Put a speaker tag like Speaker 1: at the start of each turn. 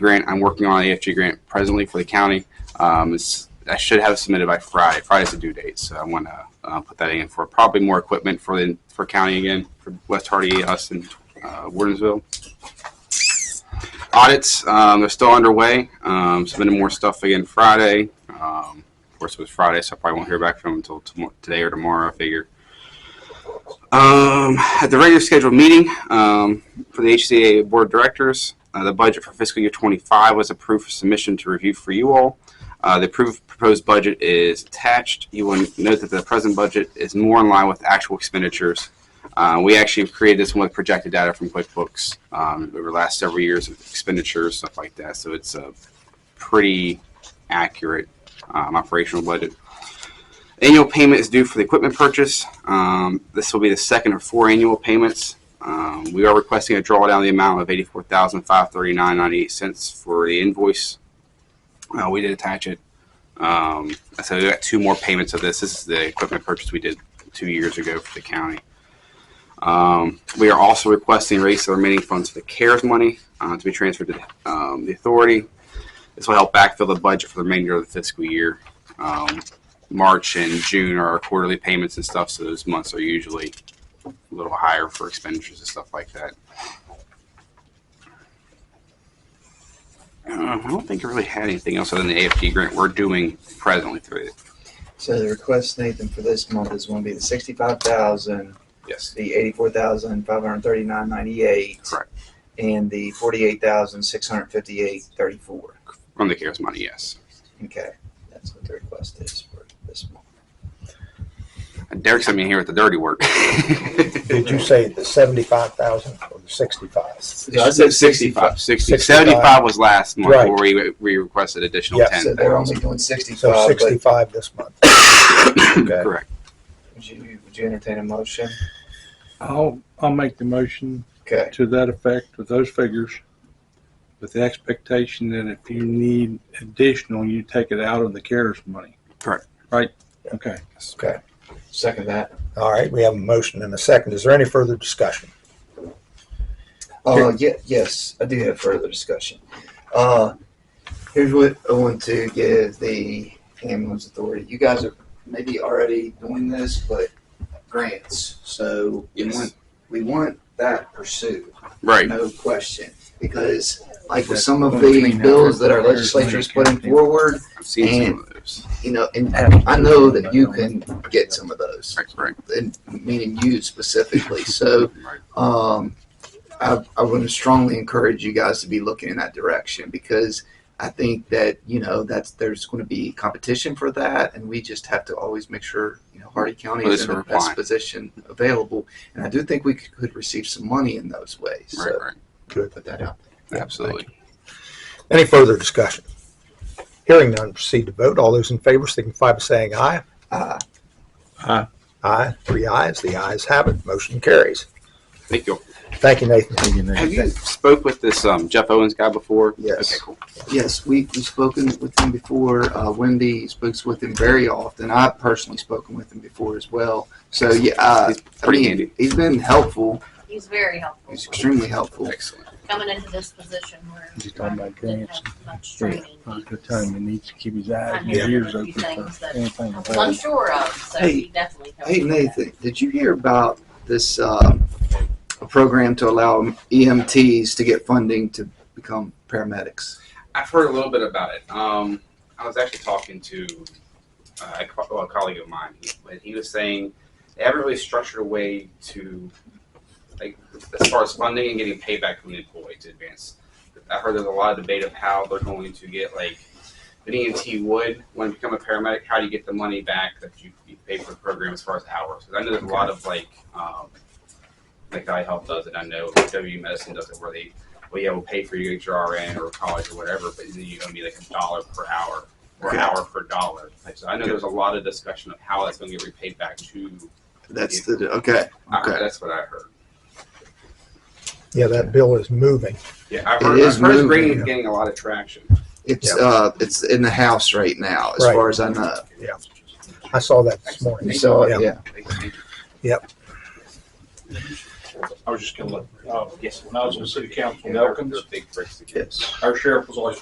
Speaker 1: grant. I'm working on an AFG grant presently for the county. Um, it's, I should have it submitted by Friday. Friday's the due date, so I want to uh, put that in for probably more equipment for the for county again for West Hardy, us, and uh, Wardensville. Audits um, they're still underway. Um, submitting more stuff again Friday. Um, of course, it was Friday, so I probably won't hear back from them until tomo- today or tomorrow. I figure. Um, at the regular scheduled meeting um, for the HCA Board of Directors, uh, the budget for fiscal year 25 was approved for submission to review for you all. Uh, the approved proposed budget is attached. You will note that the present budget is more in line with actual expenditures. Uh, we actually have created this one with projected data from QuickBooks um, over the last several years of expenditures, stuff like that. So it's a pretty accurate um, operational budget. Annual payment is due for the equipment purchase. Um, this will be the second of four annual payments. Um, we are requesting a drawdown of the amount of eighty-four thousand five thirty-nine ninety-eight cents for the invoice. Uh, we did attach it. Um, so we got two more payments of this. This is the equipment purchase we did two years ago for the county. Um, we are also requesting a release of the remaining funds for the CARES money uh, to be transferred to um, the authority. This will help backfill the budget for the remainder of the fiscal year. Um, March and June are our quarterly payments and stuff, so those months are usually a little higher for expenditures and stuff like that. Uh, I don't think I really had anything else other than the AFG grant we're doing presently through it.
Speaker 2: So the request, Nathan, for this month is going to be the sixty-five thousand,
Speaker 1: Yes.
Speaker 2: the eighty-four thousand five hundred thirty-nine ninety-eight,
Speaker 1: Correct.
Speaker 2: and the forty-eight thousand six hundred fifty-eight thirty-four.
Speaker 1: From the CARES money, yes.
Speaker 2: Okay, that's what the request is for this month.
Speaker 1: Derek sent me here with the dirty work.
Speaker 3: Did you say the seventy-five thousand or the sixty-five?
Speaker 2: So I said
Speaker 1: 65, 60,
Speaker 3: 65.
Speaker 1: 75 was last month
Speaker 3: Right.
Speaker 1: where we, we requested additional
Speaker 3: Yeah.
Speaker 2: So they're
Speaker 1: 10,000.
Speaker 2: only doing
Speaker 3: So
Speaker 2: sixty-five, but
Speaker 3: sixty-five this month.
Speaker 4: Okay.
Speaker 1: Correct.
Speaker 2: would you, would you entertain a motion?
Speaker 5: I'll, I'll make the motion
Speaker 2: Okay,
Speaker 5: to that effect with those figures, with the expectation that if you need additional, you take it out of the CARES money.
Speaker 1: Correct.
Speaker 5: Right? Okay.
Speaker 2: second that.
Speaker 3: All right, we have a motion and a second. Is there any further discussion?
Speaker 2: Uh, yeah, yes, I do have further discussion. Uh, here's what I want to give the ambulance authority. You guys are maybe already doing this, but grants. So we
Speaker 1: Yes.
Speaker 2: want, we want that pursued,
Speaker 1: Right.
Speaker 2: no question. Because like with some of the bills that our legislature is putting forward,
Speaker 1: I've seen some of those.
Speaker 2: you know, and I know that you can get some of those,
Speaker 1: Right, right,
Speaker 2: and meaning you specifically. So
Speaker 1: right.
Speaker 2: um, I, I would strongly encourage you guys to be looking in that direction because I think that you know that's there's going to be competition for that, and we just have to always make sure you know Hardy County
Speaker 1: Well,
Speaker 2: is
Speaker 1: it's
Speaker 2: in the
Speaker 1: a
Speaker 2: best
Speaker 1: requirement.
Speaker 2: position available, and I do think we could, could receive some money in those ways.
Speaker 1: Right,
Speaker 2: so
Speaker 1: right.
Speaker 2: put that out.
Speaker 1: Absolutely.
Speaker 3: Any further discussion? Hearing none, proceed to vote. All those in favor signify by saying aye.
Speaker 2: Uh,
Speaker 3: Aye, three ayes, the ayes have it, motion carries.
Speaker 1: Thank you.
Speaker 3: Thank you, Nathan.
Speaker 1: Have you spoke with this um, Jeff Owens guy before?
Speaker 2: Yes.
Speaker 1: Okay, cool.
Speaker 2: yes, we, we've spoken with him before. Uh, Wendy speaks with him very often. I've personally spoken with him before as well. So yeah, uh,
Speaker 1: He's pretty
Speaker 2: I mean,
Speaker 1: handy.
Speaker 2: He's been helpful.
Speaker 6: He's very helpful.
Speaker 2: He's extremely helpful.
Speaker 1: Excellent.
Speaker 6: Coming into this position where.
Speaker 5: He's talking about
Speaker 6: didn't
Speaker 5: grants.
Speaker 6: have Much
Speaker 5: Yeah,
Speaker 6: training.
Speaker 5: at the time, he needs to keep his eyes and
Speaker 6: Yeah.
Speaker 5: his ears open for anything.
Speaker 6: I was unsure of, so
Speaker 2: Hey,
Speaker 6: he definitely. helped
Speaker 2: Hey
Speaker 6: with that.
Speaker 2: Nathan, did you hear about this uh, a program to allow EMTs to get funding to become paramedics?
Speaker 1: I've heard a little bit about it. Um, I was actually talking to uh, a, co- well, a colleague of mine, he, but he was saying they haven't really structured a way to, like, as far as funding and getting payback from the employee to advance. I heard there's a lot of debate of how they're going to get, like, an EMT would, when you become a paramedic, how do you get the money back that you, you pay for the program as far as hours? Because I know there's a lot of, like, um, like iHealth does it, I know W Medicine does it, where they well, yeah, we'll pay for your HRN or college or whatever, but then you're going to be like a dollar per hour or
Speaker 2: Correct.
Speaker 1: hour per dollar. Like, So I know there's a lot of discussion of how that's going to get repaid back to.
Speaker 2: That's the okay.
Speaker 1: I-
Speaker 2: Okay.
Speaker 1: that's what I heard.
Speaker 3: Yeah, that bill is moving.
Speaker 1: Yeah, I've
Speaker 2: It
Speaker 1: heard,
Speaker 2: is
Speaker 1: I've heard it's
Speaker 2: moving,
Speaker 1: bringing,
Speaker 3: yeah.
Speaker 1: getting a lot of traction.
Speaker 2: It's uh, it's in the house right now, as
Speaker 3: Right.
Speaker 2: far as I know.
Speaker 3: Yeah. I saw that this morning.
Speaker 2: You saw it,
Speaker 3: Yeah.
Speaker 2: yeah.
Speaker 1: Thank you.
Speaker 3: Yep.
Speaker 2: I was just gonna let, uh,
Speaker 4: Yes.
Speaker 2: when I was on city council in Elkins,
Speaker 4: Big bricks to get.
Speaker 1: Yes.
Speaker 2: our sheriff was always